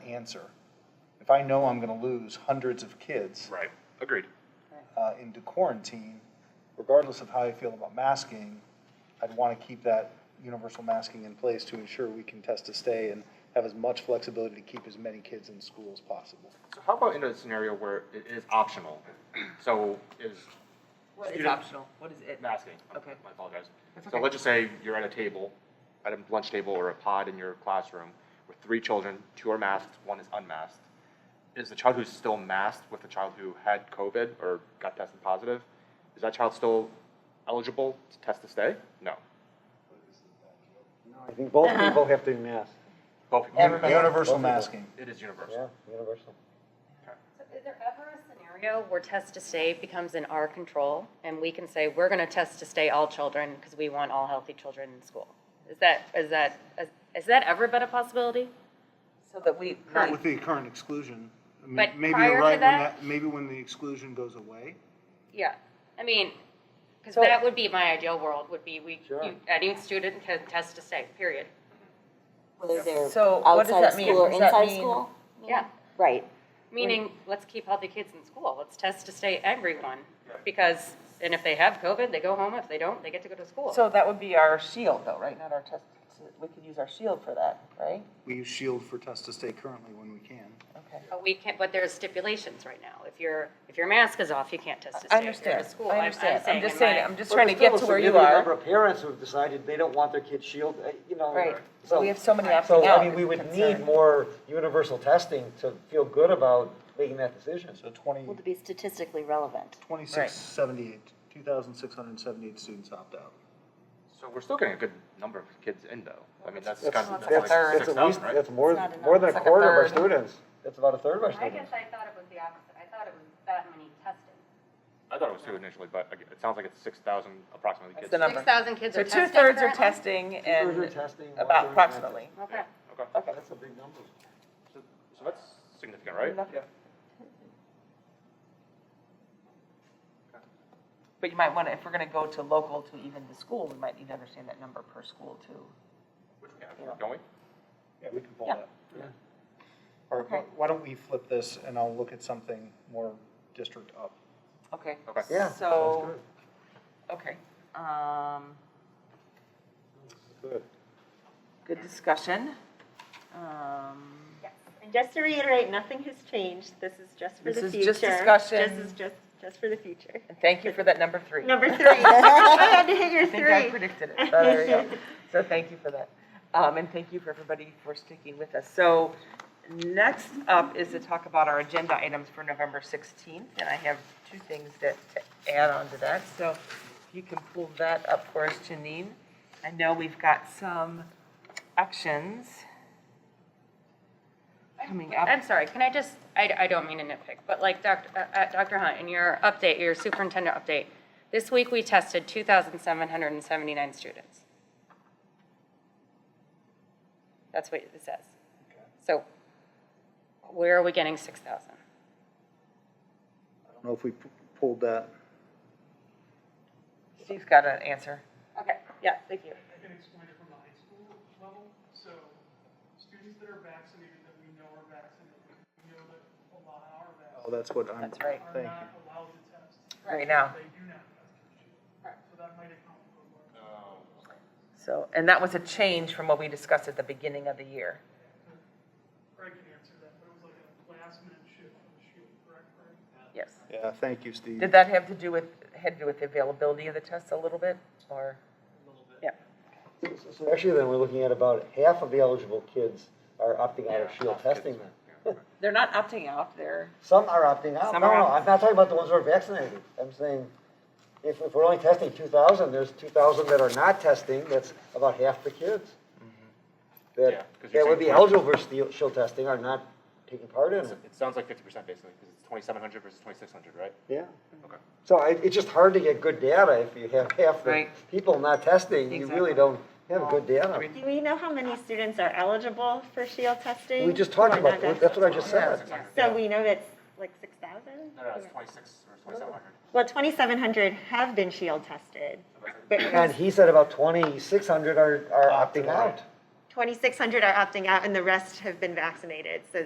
answer. If I know I'm going to lose hundreds of kids Right, agreed. uh, into quarantine, regardless of how I feel about masking, I'd want to keep that universal masking in place to ensure we can test to stay and have as much flexibility to keep as many kids in school as possible. So how about in a scenario where it is optional? So is What is Student- optional? What is it? masking. Okay. I apologize. That's So okay. let's just say you're at a table, at a lunch table or a pod in your classroom with three children, two are masked, one is unmasked. Is the child who's still masked with the child who had COVID or got tested positive, is that child still eligible to test to stay? No. I think both people have to be masked. Both people. Everybody. Universal masking. It is Yeah, universal. universal. So is there ever a scenario where test to stay becomes in our control and we can say, we're gonna test to stay all children because we want all healthy children in school? Is that, is that, is- has that ever been a possibility? So that we, Not with the current exclusion. I mean, But maybe prior you're to right when that- that, maybe when the exclusion goes away. Yeah, I mean, because that would be my ideal world, would be we, you- any student can test to stay, period. Whether they're So what does outside that of mean? school or Does that inside mean- school. Yeah, Right. meaning, let's keep healthy kids in school, let's test to stay everyone. Because, and if they have COVID, they go home, if they don't, they get to go to school. so that would be our shield though, right? Not our test, we could use our shield for that, right? We use shield for test to stay currently when we can. Okay. But we can't, but there's stipulations right now. If your, if your mask is off, you can't test I to stay if you're understand. at a school. I I'm- I'm understand. I'm just in saying, my- I'm just trying to get to where you are. of parents who've decided they don't want their kids shielded, uh, you know. Right. So we have so many So, opting I mean, out we would need concern. more universal testing to feel good about making that decision. So 20, Well, to be statistically relevant. 2678, 2,678 students opt out. So we're still getting a good number of kids in though. I mean, that's That's- kind of, that's like that's- that's six at thousand, least- right? That's more, It's not more than a enough. quarter of our It's like a students. That's about a third of our I students. guess I thought it was the opposite. I thought it was that many tested. I thought it was two initially, but ag- it sounds like it's six thousand approximately kids. That's the number. Six thousand kids So are tested two thirds are currently? testing Two-thirds are and testing, one-third are about not. approximately. Okay. Okay, Okay. That's a big number. so, so that's significant, right? Enough. But you might want to, if we're going to go to local to even the school, we might need to understand that number per school too. Which we have, don't we? Yeah, we can pull Yeah. that. Or Okay. wh- why don't we flip this and I'll look at something more district up. Okay. Okay. Yeah, sounds So, okay. Um, Good. good discussion. Um, Yes, and just to reiterate, nothing has changed, this is just for This the is future. just discussion. This is just, just for the future. and thank you for that number three. Number three, I had to hit your I think I three. predicted it. So there you go. So thank you for that. Um, and thank you for everybody for sticking with us. So next up is to talk about our agenda items for November 16th. And I have two things that to add on to that. So if you can pull that up for us, Janine. I know we've got some actions coming up. I'm sorry, can I just, I, I don't mean to nitpick, but like Dr., uh, uh, Dr. Hunt, in your update, your superintendent update, this week we tested two thousand seven hundred and seventy-nine students. That's what it says. So where are we getting six thousand? I don't know if we p- pulled that. Steve's got an answer. Okay, yeah, thank you. I can explain it from the high school level. So students that are vaccinated, that we know are vaccinated, we know that a lot are Oh, vaccinated, that's what I'm. That's right. are Thank you. not allowed to test. Right now. They do not test. So that might account for more. So, and that was a change from what we discussed at the beginning of the year. Craig can answer that, but it was like a last minute shift on the shield, correct, Craig? Yes. Yeah, thank you, Steve. Did that have to do with, had to do with the availability of the tests a little bit, or? So- So actually, then, we're looking at about half of the eligible kids are opting out of shield testing then. They're not opting out, they're. Some are opting out. Some No, are no, opt- I'm not talking about the ones who are vaccinated. I'm saying, if, if we're only testing two thousand, there's two thousand that are not testing, that's about half the kids. Yeah, That, 'cause you're that would be saying- eligible for steel, shield testing are not taking part in It it, sounds like fifty percent basically, because it's twenty-seven hundred versus twenty-six hundred, right? yeah. Okay. So it, it's just hard to get good data if you have half the Right. people not testing, you Exactly. really don't have good data. Do we know how many students are eligible for shield testing? We just who are talked about, not that's what I just said. So we know that's like six thousand? No, no, it's twenty-six or twenty-seven hundred. Well, twenty-seven hundred have been shield tested, but And he said about twenty-six hundred are, are opting out. twenty-six hundred are opting out and the rest have been vaccinated, so